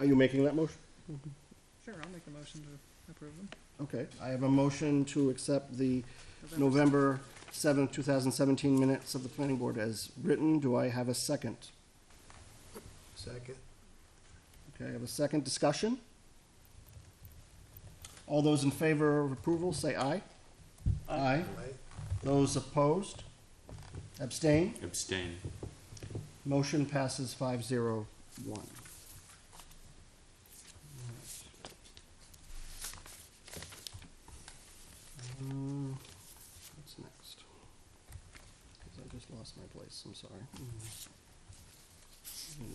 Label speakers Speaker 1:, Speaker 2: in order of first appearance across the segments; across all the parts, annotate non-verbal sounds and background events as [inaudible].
Speaker 1: Are you making that motion?
Speaker 2: Sure, I'll make the motion to approve them.
Speaker 1: Okay, I have a motion to accept the November seventh, two thousand seventeen minutes of the planning board as written. Do I have a second?
Speaker 3: Second.
Speaker 1: Okay, I have a second discussion. All those in favor of approval, say aye. Aye.
Speaker 3: Aye.
Speaker 1: Those opposed? Abstain?
Speaker 4: Abstain.
Speaker 1: Motion passes five zero one. What's next? 'Cause I just lost my place, I'm sorry. Mm-hmm.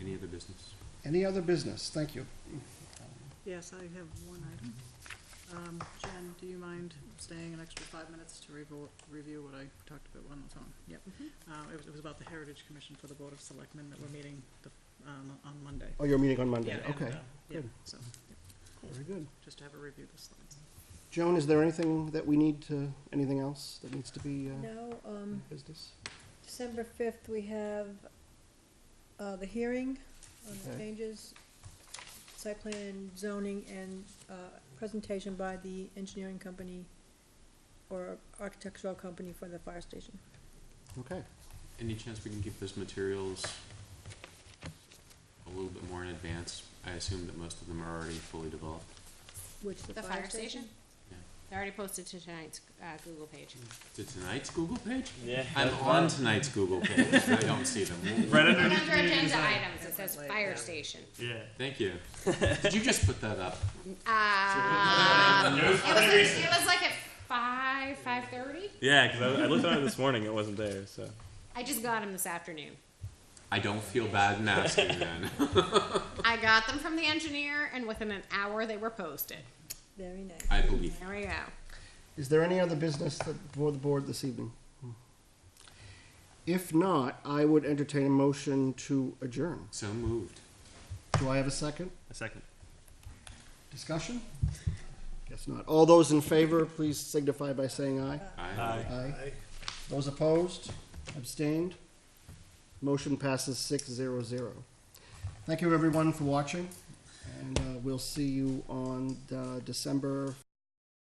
Speaker 4: Any other business?
Speaker 1: Any other business? Thank you.
Speaker 2: Yes, I have one item. Um, Jen, do you mind staying an extra five minutes to revo- review what I talked about when I was on? Yep. Uh, it was, it was about the Heritage Commission for the Board of Selectmen that we're meeting the, um, on Monday.
Speaker 1: Oh, you're meeting on
Speaker 2: Yeah,
Speaker 1: Monday,
Speaker 2: and,
Speaker 1: okay.
Speaker 2: uh, Yeah,
Speaker 1: good.
Speaker 2: so, yeah,
Speaker 1: Very good.
Speaker 2: just to have a review of the slides.
Speaker 1: Joan, is there anything that we need to, anything else that needs to be, uh,
Speaker 5: Now, um,
Speaker 1: business?
Speaker 5: December fifth, we have, uh, the hearing on the
Speaker 1: Okay.
Speaker 5: changes, site plan and zoning and, uh, presentation by the engineering company or architectural company for the fire station.
Speaker 1: Okay.
Speaker 4: Any chance we can keep those materials a little bit more in advance? I assume that most of them are already fully developed.
Speaker 5: Which the
Speaker 6: The
Speaker 5: fire station?
Speaker 4: Yeah.
Speaker 6: They're already posted to tonight's uh, Google page.
Speaker 4: To tonight's Google page?
Speaker 7: Yeah.
Speaker 4: I'm on tonight's Google page, but I don't see
Speaker 6: [laughs]
Speaker 4: them.
Speaker 7: Right
Speaker 6: Under
Speaker 7: underneath the new
Speaker 6: agenda
Speaker 7: design.
Speaker 6: items, it says
Speaker 2: Like, yeah.
Speaker 6: fire station.
Speaker 7: Yeah.
Speaker 4: Thank you. Did you just put that up?
Speaker 6: Uh, it, was, it was like at five, five thirty.
Speaker 7: Yeah, because I, I looked on it this morning. It wasn't there, so.
Speaker 6: I just got them this afternoon.
Speaker 4: I don't feel bad in asking then.
Speaker 6: I got them from the engineer, and within an hour they were posted.
Speaker 5: Very nice.
Speaker 4: I believe.
Speaker 6: There we go.
Speaker 1: Is there any other business that, for the board this evening? If not, I would entertain a motion to adjourn.
Speaker 4: So moved.
Speaker 1: Do I have a second?
Speaker 7: A second.
Speaker 1: Discussion? Guess not. All those in favor, please signify by saying aye.
Speaker 4: Aye.
Speaker 1: Aye.
Speaker 3: Aye.
Speaker 1: Those opposed? Abstained? Motion passes six zero zero. Thank you, everyone, for watching, and uh, we'll see you on uh, December